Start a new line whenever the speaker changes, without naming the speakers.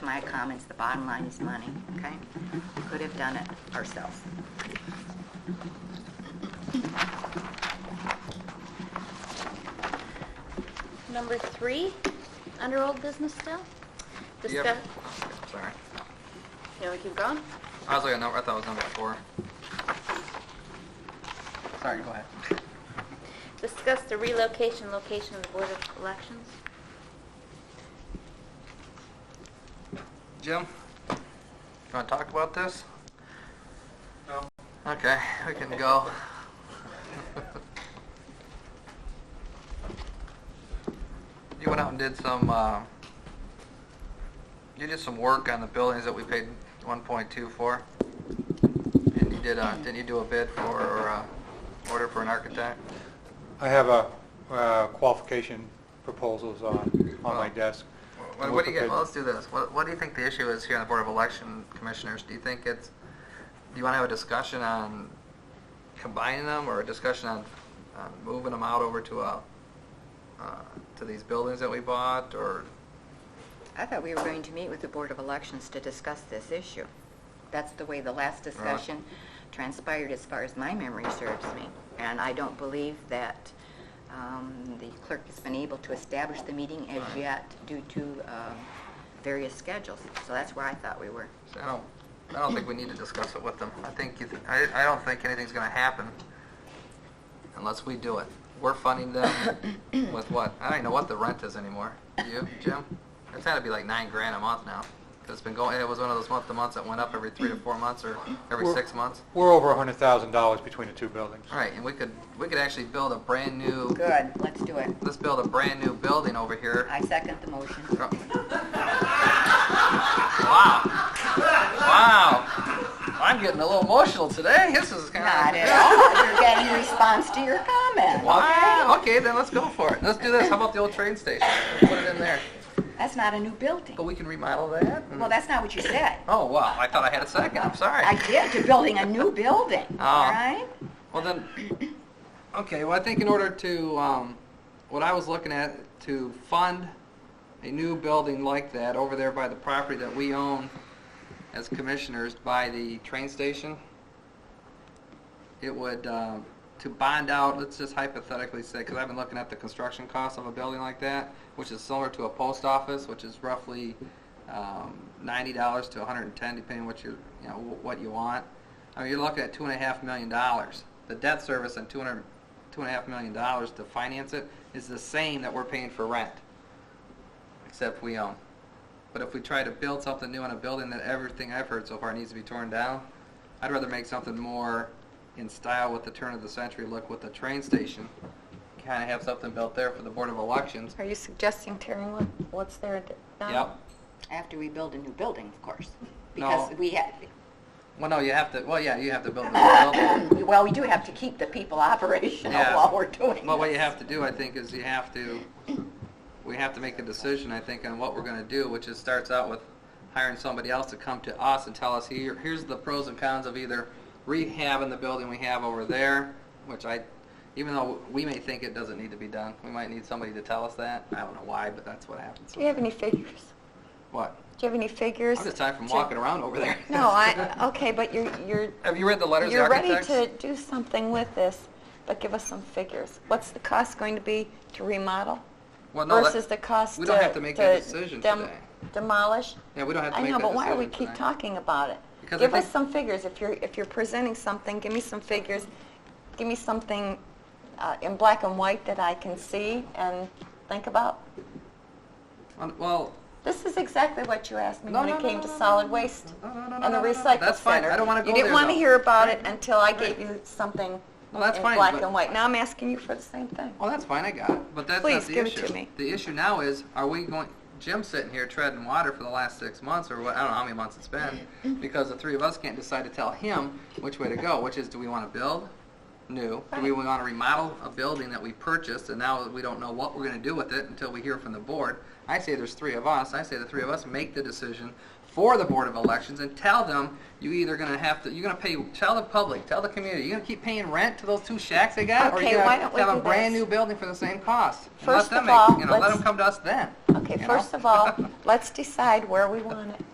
my comments, the bottom line is money, okay? We Could have done it ourselves.
Number three, under old business still?
Yep.
Discuss-
Okay, Sorry.
You want to keep going?
I was looking at number, I thought it was number four. Sorry, go ahead.
Discuss the relocation, location of the Board of Elections.
Jim, you want to talk about this? No. Okay, we can go. you went out and did some. Uh, you did some work on the buildings that we paid 1.2 for, and you did. Uh, didn't you do a bid for or uh, order for an architect?
I have a uh, qualification proposals on, on my desk.
Oh. What, what do you get? Well, let's do this. What, what do you think the issue is here on the Board of Election Commissioners? Do you think it's, do you want to have a discussion on combining them or a discussion on, on moving them out over to a, uh, to these buildings that we bought or?
I thought we were going to meet with the Board of Elections to discuss this issue. That's the way the last discussion transpired as far as my memory serves me. And I don't believe that um, the clerk has been able to establish the meeting as
Right.
yet due to um, various schedules. So that's where I thought we were.
So I don't, I don't think we need to discuss it with them. I think you, th- I, I don't think anything's gonna happen unless we do it. We're funding them with what? I don't even know what the rent is anymore. Do you, Jim? It's had to be like nine grand a month now. 'Cause It's been going, it was one of those month to months that went up every three to four months or every
We're-
six months.
We're over $100,000 between the two buildings.
All right, and we could, we could actually build a brand new,
Good, let's do it.
let's build a brand new building over here.
I second the motion.
Wow. Wow. I'm getting a little emotional today. This is kind
Not
of.
at all. You're getting response to your comment.
Wow. Okay, then let's go for it. Let's do this. How about the old train station? Put it in there.
That's not a new building.
But we can remodel that. and-
Well, that's not what you said.
Oh, wow. I thought I had a second. I'm sorry.
I did, to building a new building,
Oh.
all right?
Well, then, okay, well, I think in order to, um, what I was looking at, to fund a new building like that over there by the property that we own as commissioners by the train station, it would, uh, to bond out, let's just hypothetically say, because I've been looking at the construction cost of a building like that, which is similar to a post office, which is roughly um, ninety dollars to one hundred and ten, depending what you you know wh- what you want. I mean, you're looking at two and a half million dollars. The debt service and two hundred two and a half million dollars to finance it is the same that we're paying for rent, except we own. But if we try to build something new in a building that everything I've heard so far needs to be torn down, I'd rather make something more in style with the turn of the century look with the train station. Kind of have something built there for the Board of Elections.
Are you suggesting tearing what, what's there now?
Yep.
After we build a new building, of course.
No.
Because we have,
Well, no, you have to, well, yeah, you have to build a new building.
well, we do have to keep the people operational
Yeah.
while we're doing
Well, what
this.
you have to do, I think, is you have to, we have to make a decision, I think, on what we're gonna do, which is starts out with hiring somebody else to come to us and tell us, here, here's the pros and cons of either rehabbing the building we have over there, which I, even though we may think it doesn't need to be done, we might need somebody to tell us that. I don't know why, but that's what happens.
Do you have any figures?
What?
Do you have any figures?
I'm just tired from walking around over there.
No, I, okay, but you're, you're,
Have you read the letters of the
you're ready
architects?
to do something with this, but give us some figures. What's the cost going to be to remodel
Well, no, that-
versus the cost to?
we don't have to make that
to
decision
dem-
today.
Demolish?
Yeah, we don't have to
I
make
know,
that
but why do we
decision
keep
tonight.
talking about it?
Because I
Give us
think-
some figures. If you're, if you're presenting something, give me some figures. Give me something uh, in black and white that I can see and think about.
Well,
This is exactly what you asked me
No,
when
no,
it
no,
came
no,
to
no,
solid
no,
waste
no, no, no, no,
and the
no, no, no.
recycle
That's fine.
center.
I don't wanna go
You didn't
there,
want to
though.
hear about it until I gave you something
No, that's
in
fine,
black
but-
and white. Now I'm asking you for the same thing.
Well, that's fine, I got it, but that's not
Please,
the issue.
give it to me.
The issue now is, are we going, Jim's sitting here treading water for the last six months, or what, I don't know how many months it's been, because the three of us can't decide to tell him which way to go, which is, do we want to build new? Do we want to remodel a building that we purchased, and now we don't know what we're going to do with it until we hear from the board? I say there's three of us, I say the three of us make the decision, for the Board of Elections and tell them you either gonna have to, you're gonna pay, tell the public, tell the community, you're gonna keep paying rent to those two shacks they got?
Okay, why don't
Or
we
you're gonna have
do
a brand
this?
new building for the same cost? And let
First
them
of
make-
all,
You know, let
let's-
them come to us then.
Okay,
you know?
first of all, let's decide where we want it.